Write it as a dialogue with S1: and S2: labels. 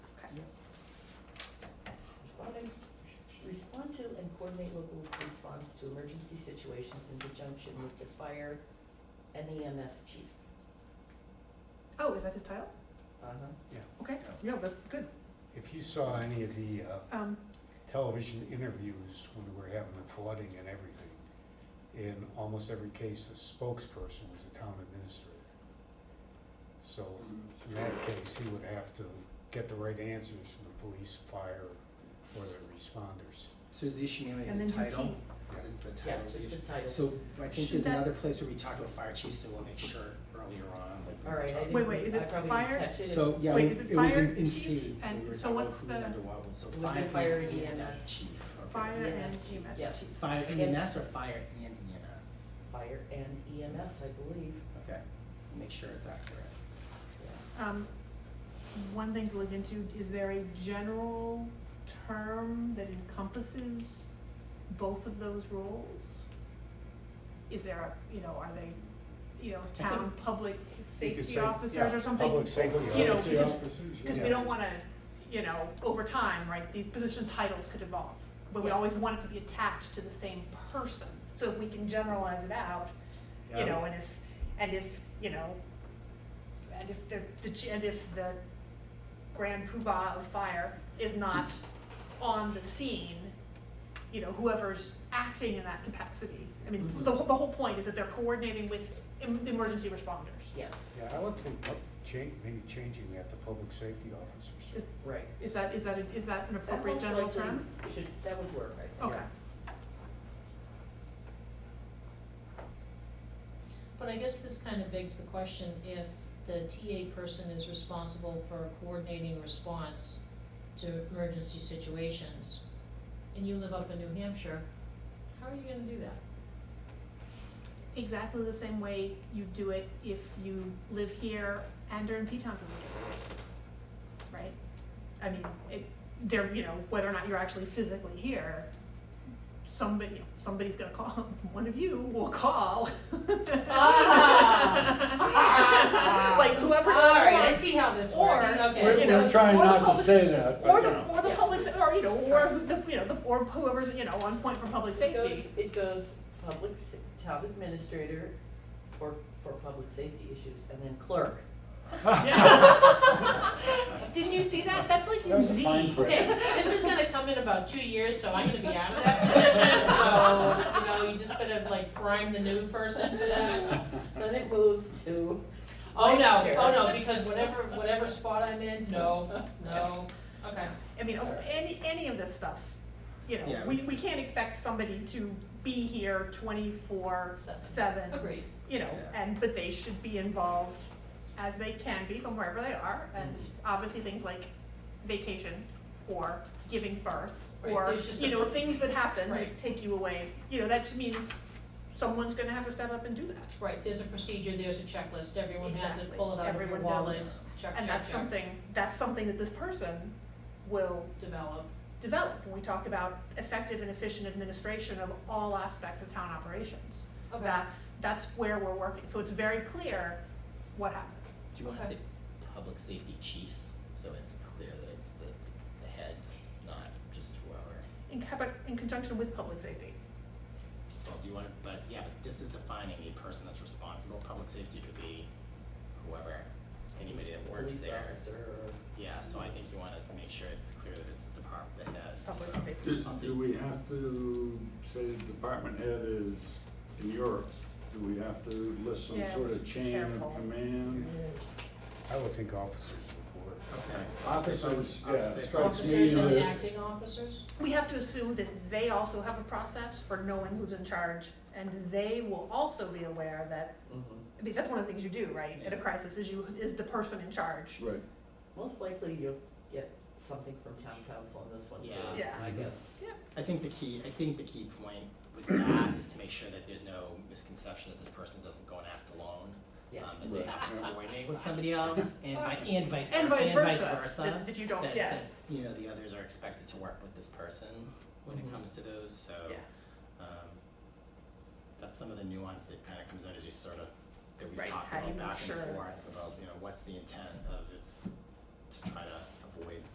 S1: coordinate local response to emergency situations in conjunction with the fire and the EMS chief.
S2: Oh, is that his title?
S1: Uh-huh.
S2: Okay, no, that's good.
S3: If you saw any of the uh,
S2: Um,
S3: television interviews when we were having the flooding and everything, in almost every case, the spokesperson was the town administrator. So in that case, he would have to get the right answers from the police, fire, or the responders.
S4: So is the issue mainly
S2: And
S4: his
S2: then do
S4: title?
S3: T.
S4: Is the
S1: Yeah,
S4: title
S1: just
S4: the
S1: the
S4: issue?
S1: title.
S4: So I think
S2: Should
S4: there's
S2: that-
S4: another place where we talk to a fire chief, so we'll make sure earlier on, like. we
S1: All right, I
S4: talk-
S1: didn't.
S2: Wait, wait, is
S1: I
S2: it
S1: probably didn't
S2: fire?
S1: catch it.
S4: So, yeah,
S2: Wait,
S4: we-
S2: is it
S4: it was
S2: fire
S4: in, in
S2: chief
S4: C,
S2: and-
S4: when we were
S2: so
S4: talking about
S2: what's
S4: who's
S2: the-
S4: under what, so
S1: Would be
S4: fire
S1: fire
S4: and
S5: E
S1: EMS.
S4: EMS chief. okay.
S2: fire and
S1: EMS.
S2: EMS
S1: Yeah.
S2: chief.
S4: Fire
S1: Yes.
S4: EMS or fire and E EMS?
S1: Fire and EMS, I believe.
S4: Okay, make sure it's accurate.
S1: Yeah.
S2: Um, one thing to look into, is there a general term that encompasses both of those roles? Is there a, you know, are they, you know, town public
S3: You could
S2: safety
S3: say,
S2: officers
S3: yeah,
S2: or something?
S3: Public safety.
S2: You know,
S3: officer.
S2: because- Because we
S3: Yeah.
S2: don't wanna, you know, over time, right, these positions titles could evolve, but we
S1: Yes.
S2: always want it to be attached to the same person. So if we can generalize it out, you
S4: Yeah.
S2: know, and if, and if, you know, and if the, the ch- and if the grand poobah of fire is not on the scene, you know, whoever's acting in that capacity. I mean, the, whole- the whole point is that they're coordinating with em- emergency responders.
S1: Yes,
S3: Yeah, I would think, up- cha- maybe changing that to public safety officers.
S1: right.
S2: Is that, is that, a- is that an
S1: That
S2: appropriate
S1: most
S2: general
S1: likely
S2: term?
S1: Should, that would work, I think.
S2: Okay.
S6: But I guess this kind of begs the question, if the TA person is responsible for coordinating response to emergency situations, and you live up in New Hampshire, how are you gonna do that?
S2: Exactly the same way you do it if you live here and are in P-Town for the weekend. Right? I mean, it, there, you know, whether or not you're actually physically here, somebody, you know, somebody's gonna call, one of you will call.
S6: Ah.
S2: Like whoever.
S6: how this
S2: Or,
S6: Okay.
S2: you
S7: We're,
S2: know,
S7: we're trying
S2: or the
S7: not to
S2: public-
S7: say that,
S2: Or
S7: but you
S2: the,
S7: know.
S2: or the
S1: Yeah.
S2: public, se- or, you know, or the, you know, the, or whoever's, you know, on point for public
S1: It
S2: safety.
S1: goes, it goes public, sa- town administrator for, for public safety issues, and then clerk.
S2: Didn't you see that? That's like
S7: That was a
S2: Z.
S7: fine print.
S6: Okay, this is gonna come in about two years, so I'm gonna be out of that position, so, you know, you just better like prime the new person for that.
S1: Then it moves to.
S6: Oh,
S1: vice
S6: no,
S1: chair.
S6: oh, no, because whatever, whatever spot I'm in, no, no, okay.
S2: I mean, oh, any, any of this stuff, you know,
S4: Yeah.
S2: we, we can't expect somebody to be here twenty-four,
S6: Seven.
S2: seven.
S6: Agreed.
S2: You know,
S4: Yeah.
S2: and, but they should be involved as they can be from wherever they are, and
S6: Mm-hmm.
S2: obviously things like vacation or giving birth
S6: Right,
S2: or,
S6: there's just
S2: you
S6: a-
S2: know, things that happen that
S6: Right.
S2: take you away, you know, that just means someone's gonna have to step up and do that.
S6: Right, there's a procedure, there's a checklist, everyone has it,
S2: Exactly.
S6: pull it out of your
S2: Everyone
S6: wallet,
S2: knows.
S6: check, check, check.
S2: And that's something, that's something that this person will
S6: Develop,
S2: develop when we talk about effective and efficient administration of all aspects of town operations.
S6: okay.
S2: That's, that's where we're working, so it's very clear what happens.
S5: Do you wanna
S6: Okay.
S5: say public safety chiefs, so it's clear that it's the, the heads, not just whoever?
S2: In, co- but in conjunction with public safety.
S4: Well, do you want, but yeah, but this is defining a person that's responsible, public safety could be whoever, anybody that works
S1: police
S4: there.
S1: officer or-
S4: Yeah, so I think you wanna make sure it's clear that it's the department, the head.
S2: Public
S4: so
S2: safety.
S7: Do,
S4: I'll
S7: do
S4: see,
S7: we have to say the department head is in Europe? Do we have to list some
S2: Yeah,
S7: sort of chain
S2: careful.
S7: of command?
S3: I would think officers report.
S4: okay.
S7: Officers, yeah,
S4: Officers.
S7: strikes me
S6: Officers and
S7: as,
S6: acting officers?
S2: We have to assume that they also have a process for knowing who's in charge, and they will also be aware that,
S1: Mhm.
S2: I mean, that's one of the things you do, right, in a
S4: Yeah.
S2: crisis, is you, is the person in charge.
S7: right,
S1: Most likely you'll get something from town council on this one too,
S4: Yeah.
S2: Yeah.
S1: I guess.
S4: I think the key, I think the key point with that is to make sure that there's no misconception that this person doesn't go and act alone.
S1: Yeah.
S4: Um, that they
S7: Right.
S4: have to coordinate with somebody else and vi- and vice versa.
S2: And vice versa,
S4: versa,
S2: that, that you don't,
S4: that-
S2: yes,
S4: that, You know, the others are expected to work with this person when
S1: Mhm.
S4: it comes to those, so.
S2: Mm-hmm. yeah,
S4: um, That's some of the nuance that kind of comes out as you sort of, that we've
S2: Right,
S4: talked
S2: how do
S4: about
S2: you make
S4: back
S2: sure
S4: and forth
S2: it's-
S4: about, you know, what's the intent of it's to try to avoid